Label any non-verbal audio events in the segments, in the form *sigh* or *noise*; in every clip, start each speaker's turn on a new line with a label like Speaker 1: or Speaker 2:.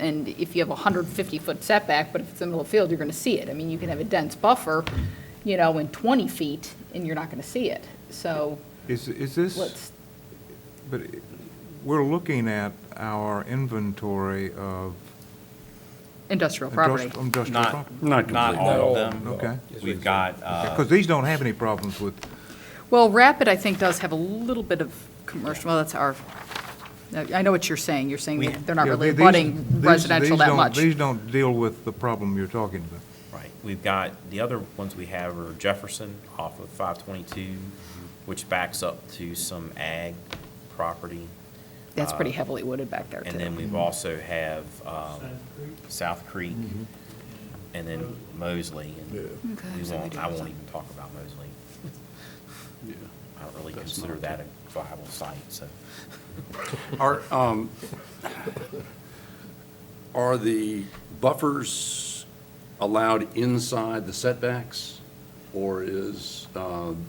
Speaker 1: And if you have a 150-foot setback, but if it's in the middle of the field, you're going to see it. I mean, you can have a dense buffer, you know, in 20 feet, and you're not going to see it. So
Speaker 2: Is, is this,
Speaker 1: let's,
Speaker 2: but i- we're looking at our inventory of
Speaker 1: industrial property.
Speaker 2: industri- industrial
Speaker 3: Not, uh,
Speaker 2: property.
Speaker 4: Not
Speaker 3: not
Speaker 4: completely.
Speaker 3: all of them.
Speaker 2: Okay.
Speaker 3: We've got, uh,
Speaker 2: Because these don't have any problems with,
Speaker 1: Well, Rapid, I think, does have a little bit of commercial, well, that's our, I know what you're saying. You're saying
Speaker 3: We-
Speaker 1: they're not
Speaker 2: Yeah,
Speaker 1: really
Speaker 2: the- these-
Speaker 1: abutting
Speaker 2: these-
Speaker 1: residential
Speaker 2: these
Speaker 1: that
Speaker 2: don't-
Speaker 1: much.
Speaker 2: These don't deal with the problem you're talking about.
Speaker 3: right, we've got, the other ones we have are Jefferson off of 522, which backs up to some ag property.
Speaker 1: That's
Speaker 3: uh,
Speaker 1: pretty heavily wooded back there, too.
Speaker 3: And then we've also have um, South Creek, and then Mosley. and
Speaker 1: Okay,
Speaker 3: We
Speaker 1: so we
Speaker 3: won't,
Speaker 1: do
Speaker 3: I
Speaker 1: have
Speaker 3: won't
Speaker 1: some.
Speaker 3: even talk about Mosley. I don't really consider that a viable site, so.
Speaker 5: *laughs*
Speaker 4: Are, um,
Speaker 5: Are the buffers allowed inside the setbacks? Or is um,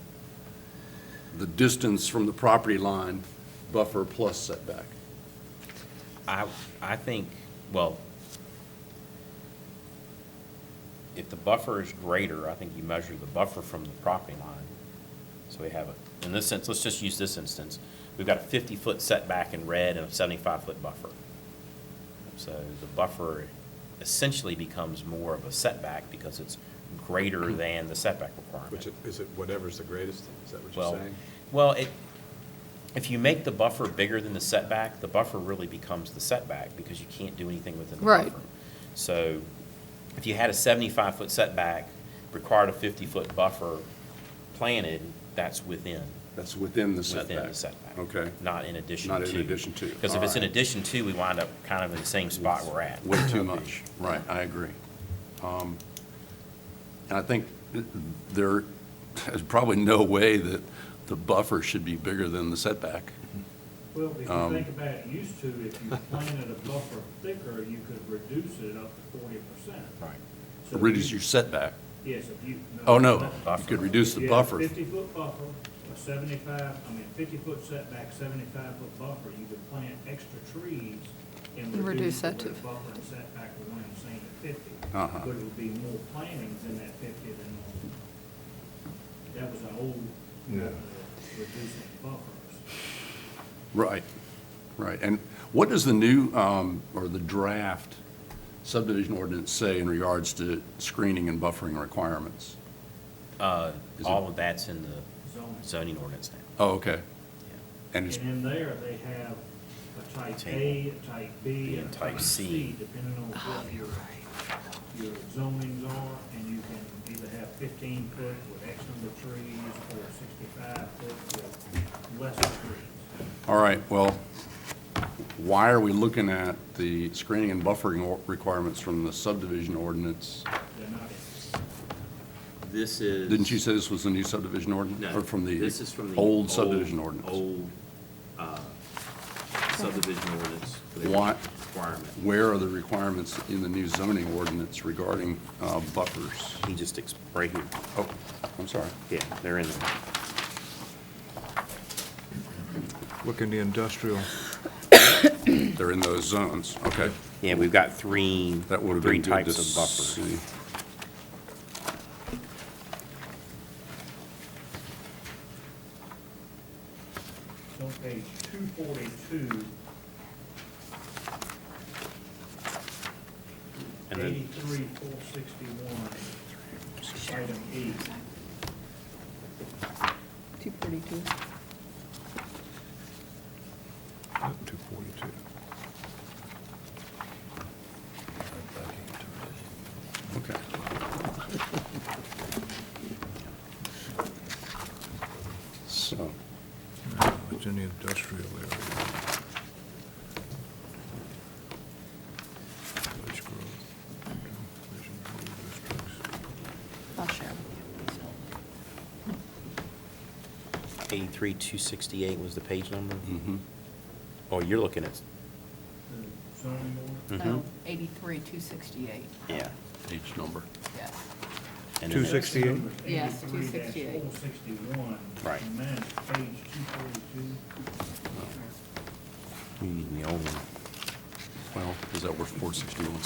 Speaker 5: the distance from the property line buffer plus setback?
Speaker 3: I, I think, well, if the buffer is greater, I think you measure the buffer from the property line. So we have a, in this sense, let's just use this instance. We've got a fifty-foot setback in red and a seventy-five-foot buffer. So the buffer essentially becomes more of a setback because it's greater than the setback requirement.
Speaker 6: Which, it- is it whatever's the greatest, is that what
Speaker 3: Well,
Speaker 6: you're saying?
Speaker 3: Well, it, if you make the buffer bigger than the setback, the buffer really becomes the setback because you can't do anything within the
Speaker 1: Right.
Speaker 3: buffer. So if you had a seventy-five foot setback, required a fifty-foot buffer planted, that's within,
Speaker 5: That's within the setback?
Speaker 3: within the setback.
Speaker 5: Okay.
Speaker 3: Not in addition to.
Speaker 5: Not in addition to,
Speaker 3: Because if it's in
Speaker 5: alright.
Speaker 3: addition to, we wind up kind of in the same spot we're at.
Speaker 5: Way too much. Right, I agree. Um, And I think th- there is probably no way that the buffer should be bigger than the setback.
Speaker 7: Well, if
Speaker 5: Um,
Speaker 7: you think about it, used to, if you planted a buffer thicker, you could reduce it up to forty percent.
Speaker 3: Right.
Speaker 5: Reduce your setback.
Speaker 7: Yes, if you.
Speaker 5: Oh, no, you
Speaker 3: Buffer.
Speaker 5: could reduce the
Speaker 7: If you had a
Speaker 5: buffer.
Speaker 7: Fifty-foot buffer, a seventy-five, I mean, fifty-foot setback, seventy-five-foot buffer, you could plant extra trees and reduce the
Speaker 1: that
Speaker 7: way
Speaker 1: to-
Speaker 7: the buffer and setback were one and the same at fifty.
Speaker 5: Uh-huh.
Speaker 7: But it would be more plantings in that fifty than normal. That was an old method of reducing buffers.
Speaker 5: Right, right. And what does the new, um, or the draft subdivision ordinance say in regards to screening and buffering requirements?
Speaker 3: Uh,
Speaker 5: Is it-
Speaker 3: all of that's in the
Speaker 7: Zoning.
Speaker 3: zoning ordinance now.
Speaker 5: Oh, okay.
Speaker 3: Yeah.
Speaker 5: And
Speaker 7: And
Speaker 5: it's,
Speaker 7: in there, they have a type A, a type B, and a type C, depending on what your, your zonings are. And you can either have fifteen foot with X number of trees, or sixty-five foot with less trees.
Speaker 5: all right, well, why are we looking at the screening and buffering or- requirements from the subdivision ordinance?
Speaker 7: They're not,
Speaker 8: This is.
Speaker 5: Didn't you say this was the new subdivision ordinance?
Speaker 8: No.
Speaker 5: Or from the
Speaker 8: This is from the.
Speaker 5: old subdivision ordinance?
Speaker 8: Old uh, subdivision ordinance. the
Speaker 5: Why-
Speaker 8: Requirement.
Speaker 5: Where are the requirements in the new zoning ordinance regarding uh, buffers?
Speaker 3: He just, ex- right here,
Speaker 5: Oh, I'm sorry.
Speaker 3: yeah, they're in there.
Speaker 2: Look in the industrial.
Speaker 5: They're in those zones, okay.
Speaker 3: Yeah, we've got three,
Speaker 5: That would have
Speaker 3: three
Speaker 5: been good to
Speaker 3: types of buffers.
Speaker 5: see.
Speaker 7: it's on page two forty-two,
Speaker 3: And then-
Speaker 7: eighty-three, four sixty-one, item E.
Speaker 1: 242.
Speaker 2: 242.
Speaker 5: Okay. So,
Speaker 2: It's in the industrial area. Village growth, vision, rural districts.
Speaker 1: I'll share.
Speaker 3: 83268 was the page number?
Speaker 5: mhm.
Speaker 3: Oh, you're looking at, mm-hmm.
Speaker 7: The zoning board,
Speaker 1: No, 83, 268,
Speaker 3: yeah.
Speaker 5: each number.
Speaker 1: yes.
Speaker 3: And then
Speaker 2: Two
Speaker 3: there's-
Speaker 2: six- 268?
Speaker 1: Yes, 268.
Speaker 7: Four sixty-one.
Speaker 3: Right.
Speaker 7: And then it's page two forty-two.
Speaker 3: You need the old one.
Speaker 5: Well, is that worth 461?